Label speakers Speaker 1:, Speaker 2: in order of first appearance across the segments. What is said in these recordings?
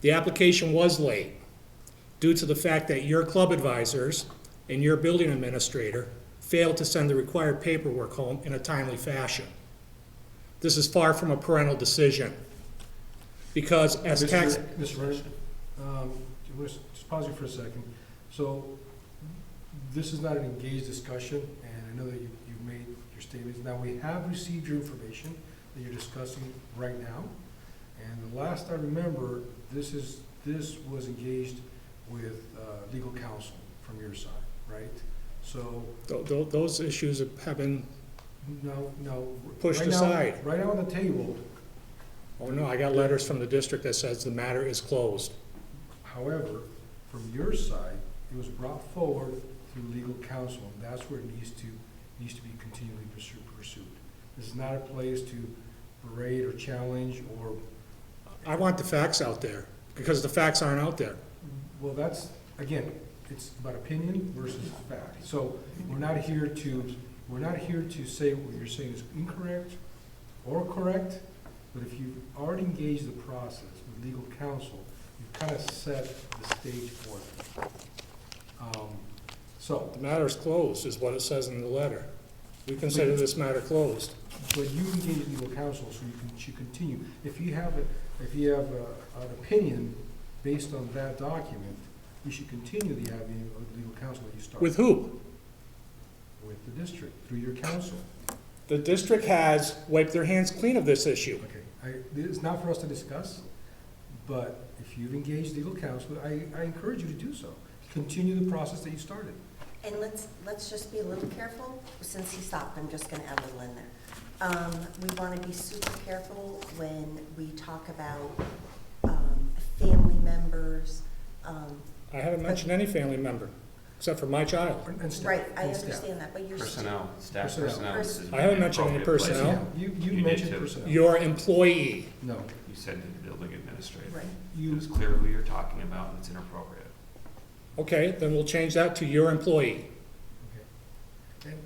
Speaker 1: The application was late due to the fact that your club advisors and your building administrator failed to send the required paperwork home in a timely fashion. This is far from a parental decision, because as tax...
Speaker 2: Mr. Mr. Renner, um, do you wish- just pause you for a second. So this is not an engaged discussion, and I know that you, you've made your statements. Now, we have received your information that you're discussing right now. And the last I remember, this is, this was engaged with uh, legal counsel from your side, right? So,
Speaker 1: Tho- tho- Those issues have been,
Speaker 2: no, no.
Speaker 1: Pushed
Speaker 2: right now-
Speaker 1: aside.
Speaker 2: Right now on the table,
Speaker 1: oh no, I got letters from the district that says the matter is closed.
Speaker 2: However, from your side, it was brought forward through legal counsel, and that's where it needs to, needs to be continually pursued, pursued. This is not a place to berate or challenge or,
Speaker 1: I want the facts out there, because the facts aren't out there.
Speaker 2: well, that's, again, it's about opinion versus fact. So we're not here to, we're not here to say what you're saying is incorrect or correct, but if you've already engaged the process with legal counsel, you've kind of set the stage for it. Um, So,
Speaker 1: The matter is closed, is what it says in the letter. We consider this matter closed.
Speaker 2: But you engage legal counsel, so you can, you continue. If you have, a- if you have a- an opinion based on that document, you should continue the avenue of legal counsel that you started.
Speaker 1: With who?
Speaker 2: With the district, through your counsel.
Speaker 1: The district has wiped their hands clean of this issue.
Speaker 2: Okay, I, it's not for us to discuss, but if you've engaged legal counsel, I, I encourage you to do so. Continue the process that you started.
Speaker 3: And let's, let's just be a little careful, since he stopped, I'm just gonna add a little in there. Um, we wanna be super careful when we talk about, um, family members, um,
Speaker 1: I haven't mentioned any family member, except for my child.
Speaker 2: And- and staff-
Speaker 3: right, I
Speaker 2: and staff.
Speaker 3: understand that, but you're. still-
Speaker 4: Personnel, staff
Speaker 2: Personnel.
Speaker 4: personnel. This is
Speaker 1: I haven't mentioned any
Speaker 4: inappropriate place.
Speaker 1: personnel.
Speaker 2: Yeah, You, you
Speaker 4: You did
Speaker 2: mentioned
Speaker 4: too.
Speaker 2: personnel.
Speaker 1: Your employee.
Speaker 2: No,
Speaker 4: You said to the building administrator.
Speaker 3: Right,
Speaker 2: you,
Speaker 4: It was clear who you're talking about and it's inappropriate.
Speaker 1: Okay, then we'll change that to your employee.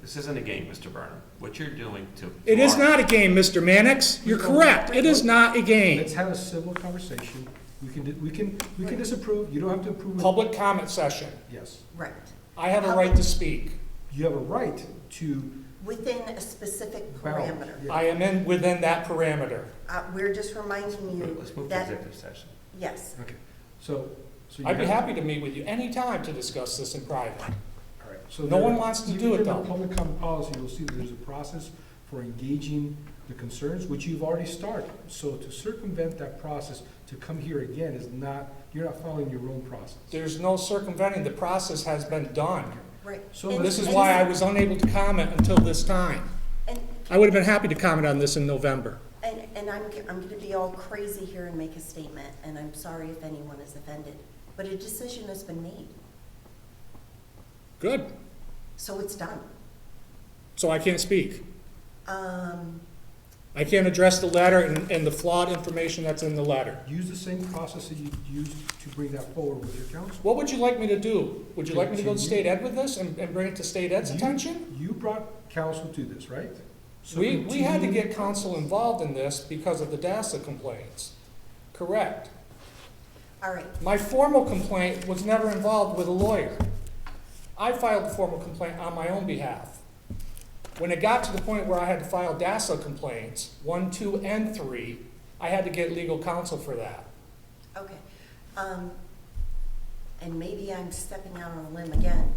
Speaker 4: This isn't a game, Mr. Burnham. What you're doing to.
Speaker 1: It is
Speaker 4: tomorrow-
Speaker 1: not a game, Mr. Mannix. You're correct. It is not a game.
Speaker 2: let's have a civil conversation. We can, di- we can, we can disapprove, you don't have to approve. with-
Speaker 1: Public comment session.
Speaker 2: Yes.
Speaker 3: right.
Speaker 1: I have a right to speak.
Speaker 2: You have a right to.
Speaker 3: Within a specific
Speaker 2: bound-
Speaker 3: parameter.
Speaker 2: yeah.
Speaker 1: I am in, within that parameter.
Speaker 3: Uh, we're just reminding
Speaker 4: Wait,
Speaker 3: you
Speaker 4: Let's move to
Speaker 3: that,
Speaker 4: executive session.
Speaker 3: yes,
Speaker 2: Okay, so, so. you
Speaker 1: I'd be
Speaker 2: have-
Speaker 1: happy to meet with you anytime to discuss this in private.
Speaker 2: All right, so
Speaker 1: No
Speaker 2: there-
Speaker 1: one wants to
Speaker 2: if
Speaker 1: do
Speaker 2: you
Speaker 1: it,
Speaker 2: look at
Speaker 1: though.
Speaker 2: Public comment policy, you'll see that there's a process for engaging the concerns, which you've already started. So to circumvent that process, to come here again is not, you're not following your own process.
Speaker 1: There's no circumventing, the process has been done.
Speaker 3: right.
Speaker 2: So
Speaker 3: And-
Speaker 1: This is
Speaker 3: and-
Speaker 1: why I was unable to comment until this time.
Speaker 3: And
Speaker 1: I would have been happy to comment on this in November.
Speaker 3: And, and I'm, I'm gonna be all crazy here and make a statement, and I'm sorry if anyone is offended, but a decision has been made,
Speaker 1: Good,
Speaker 3: so it's done.
Speaker 1: so I can't speak.
Speaker 3: Um,
Speaker 1: I can't address the letter and, and the flawed information that's in the letter.
Speaker 2: Use the same process that you used to bring that forward with your council.
Speaker 1: What would you like me to do? Would you like me to go to state ed with this and, and bring it to state ed's attention?
Speaker 2: You brought council to this, right? So
Speaker 1: We, we had to
Speaker 2: continue-
Speaker 1: get council involved in this because of the DASSA complaints. Correct.
Speaker 3: all right,
Speaker 1: My formal complaint was never involved with a lawyer. I filed the formal complaint on my own behalf. When it got to the point where I had to file DASSA complaints, one, two, and three, I had to get legal counsel for that.
Speaker 3: okay. Um, and maybe I'm stepping out on a limb again,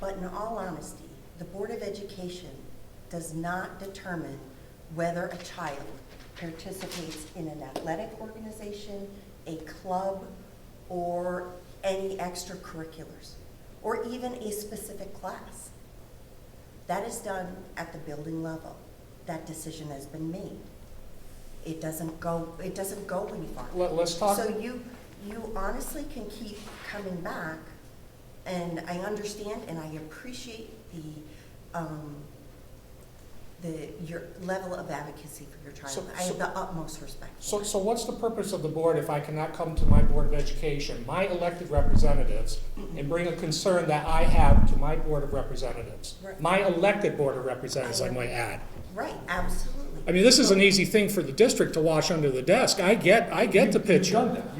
Speaker 3: but in all honesty, the Board of Education does not determine whether a child participates in an athletic organization, a club, or any extracurriculars, or even a specific class. That is done at the building level. That decision has been made. It doesn't go, it doesn't go any farther.
Speaker 1: Let, let's talk,
Speaker 3: So you, you honestly can keep coming back, and I understand and I appreciate the, um, the, your level of advocacy for your
Speaker 1: So-
Speaker 3: child. I have
Speaker 1: so-
Speaker 3: the utmost respect.
Speaker 1: so, so what's the purpose of the board if I cannot come to my Board of Education, my elected representatives, and bring a concern that I have to my Board of Representatives?
Speaker 3: Right.
Speaker 1: My elected Board of Representatives, I might add.
Speaker 3: Right, absolutely.
Speaker 1: I mean, this is an easy thing for the district to wash under the desk. I get, I get the
Speaker 2: You've
Speaker 1: picture.
Speaker 2: done that.